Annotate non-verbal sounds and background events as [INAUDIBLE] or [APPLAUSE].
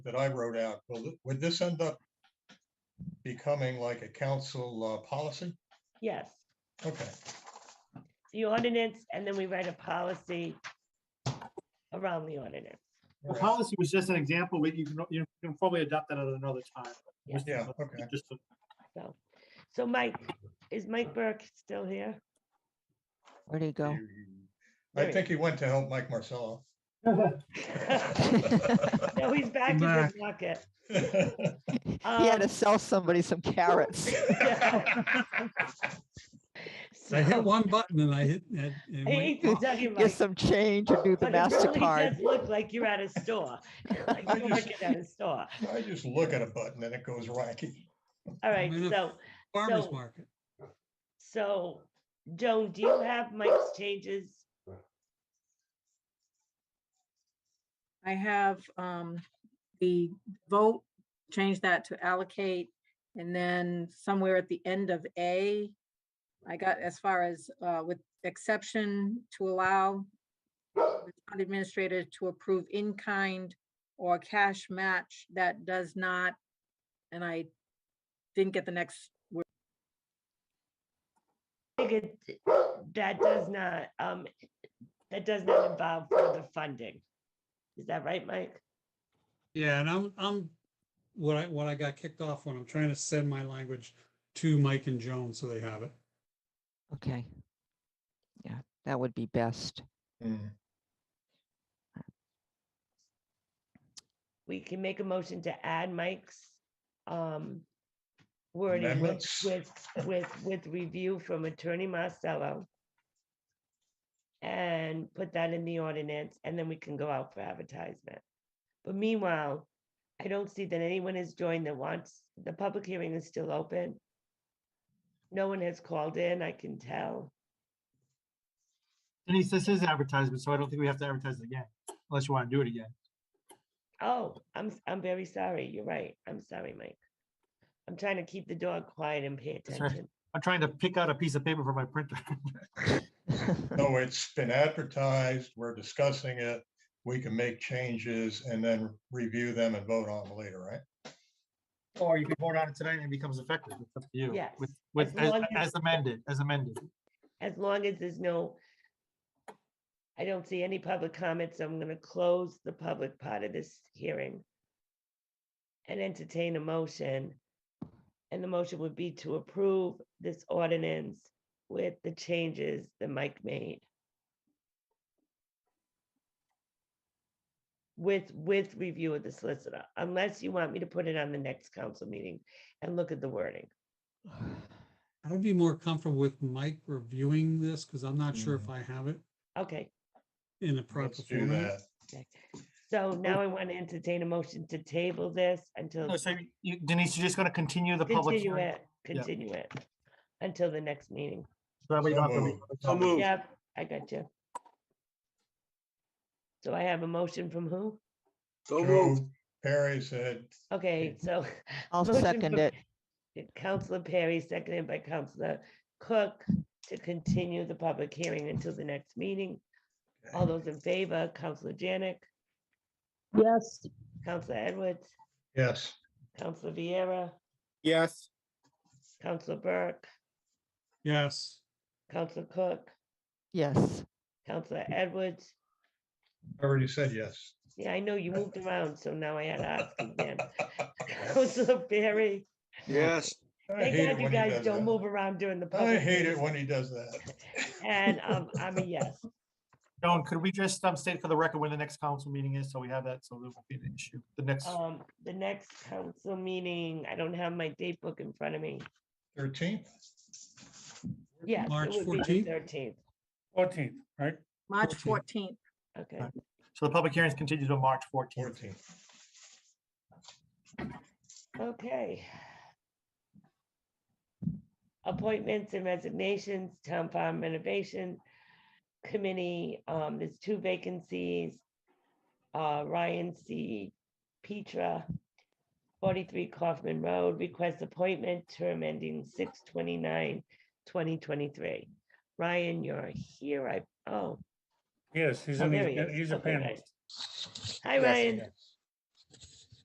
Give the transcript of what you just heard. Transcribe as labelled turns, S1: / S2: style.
S1: that I wrote out, will, th- would this end up becoming like a council uh, policy?
S2: Yes,
S1: Okay,
S2: the ordinance, and then we write a policy around the ordinance.
S1: all
S3: The
S1: right.
S3: policy was just an example, but you can, you can probably adopt that at another time.
S2: Yeah.
S1: yeah, okay.
S3: Just to-
S2: So, so Mike, is Mike Burke still here?
S4: Where'd he go?
S1: I think he went to help Mike Marcello.
S2: No, he's back in the
S3: back.
S2: pocket.
S4: [LAUGHS] He
S2: Um, [LAUGHS]
S4: had to sell somebody some carrots.
S5: I
S2: so-
S5: hit one button and I hit. and- and
S2: I
S5: went-
S2: hate to tell you,
S4: Get
S2: Mike,
S4: some change or do the
S2: but it really
S4: MasterCard.
S2: does look like you're at a
S4: [LAUGHS]
S2: store. Like
S1: I
S2: you're
S1: just-
S2: working at a store.
S1: [LAUGHS] I just look at a button and it goes wacky.
S2: All right,
S5: Minute.
S2: so,
S5: Farmer's
S2: So-
S5: market.
S2: so Joan, do you have Mike's changes?
S6: I have um, the vote, change that to allocate. And then somewhere at the end of A, I got as far as uh, with exception to allow the town administrator to approve in-kind or cash match that does not, and I didn't get the next word.
S2: I think it, that does not, um, that does not involve further funding. Is that right, Mike?
S5: Yeah, and I'm, I'm, what I, what I got kicked off when I'm trying to send my language to Mike and Joan so they have it.
S4: Okay. Yeah, that would be
S2: [LAUGHS]
S4: best. [SIGHS]
S1: Hmm.
S2: We can make a motion to add Mike's, um, wording with,
S1: Amendments?
S2: with, with, with review from Attorney Marcello. And put that in the ordinance, and then we can go out for advertisement. But meanwhile, I don't see that anyone has joined that wants, the public hearing is still open. No one has called in, I can tell.
S3: Denise, this is advertisement, so I don't think we have to advertise it again, unless you want to do it again.
S2: Oh, I'm, s- I'm very sorry. You're right. I'm sorry, Mike. I'm trying to keep the dog quiet and pay
S3: That's all right.
S2: attention.
S3: I'm trying to pick out a piece of paper for my printer. [LAUGHS]
S1: No, it's been advertised, we're discussing it, we can make changes and then review them and vote on them later, right?
S3: Or you can vote on it tonight and it becomes effective. It's up to you.
S2: Yes,
S3: With,
S2: as
S3: with, as
S2: long as-
S3: as amended, as amended.
S2: As long as there's no, I don't see any public comments. I'm going to close the public part of this hearing and entertain a motion. And the motion would be to approve this ordinance with the changes that Mike made. With, with review of the solicitor, unless you want me to put it on the next council meeting and look at the wording.
S5: I'd be more comfortable with Mike reviewing this because I'm not sure if I have it
S2: Okay,
S5: in a
S1: Mm.
S5: proper
S1: Let's do
S5: format.
S1: that.
S2: so now I want to entertain a motion to table this until.
S3: No, so you- Denise, you're just going to continue the public
S2: Continue
S3: hearing.
S2: it, continue it until the next meeting.
S3: So that way you
S1: So
S3: don't have to re-
S1: moved.
S3: So moved.
S2: Yep, I got you. So I have a motion from who?
S1: Joe Perry said,
S2: Okay, so. [LAUGHS]
S4: I'll
S2: motion
S4: second
S2: from
S4: it.
S2: Counselor Perry, seconded by Counselor Cook to continue the public hearing until the next meeting. All those in favor, Counselor Janik,
S6: Yes.
S2: Counselor Edwards,
S1: yes,
S2: Counselor Vieira,
S7: Yes,
S2: Counselor Burke,
S5: Yes,
S2: Counselor Cook,
S4: Yes.
S2: Counselor
S1: Mm.
S2: Edwards,
S1: I already said [LAUGHS] yes.
S2: Yeah, I know you moved around, so now I had to ask
S1: [LAUGHS]
S2: again. [LAUGHS] Counselor Barry,
S7: yes,
S1: I
S2: thank
S1: hate it
S2: God you
S1: when he
S2: guys
S1: does
S2: don't
S1: that.
S2: move around during the public.
S1: I hate it
S2: meetings.
S1: when he does that. [LAUGHS]
S2: And um, I'm a yes.
S3: Joan, could we just um, state for the record when the next council meeting is, so we have that, so there won't be an issue, the next,
S2: Um, the next council meeting, I don't have my date book in front of me.
S1: Thirteenth,
S2: Yes,
S5: March
S2: it would be
S5: 14th?
S2: the thirteenth.
S5: fourteenth, right?
S6: March
S5: 14th.
S6: 14th.
S2: Okay,
S3: Right. so the public hearings continue to March fourteenth.
S1: fourteenth.
S2: okay. Appointments and resignations, town farm renovation committee, um, there's two vacancies. uh, Ryan C. Petra, 43 Kaufman Road, request appointment, term ending 6/29/2023. Ryan, you're Oh, here, I, oh. Yes, he's in, he's a panelist. Hi,
S1: Yes, I
S2: Ryan.
S1: guess.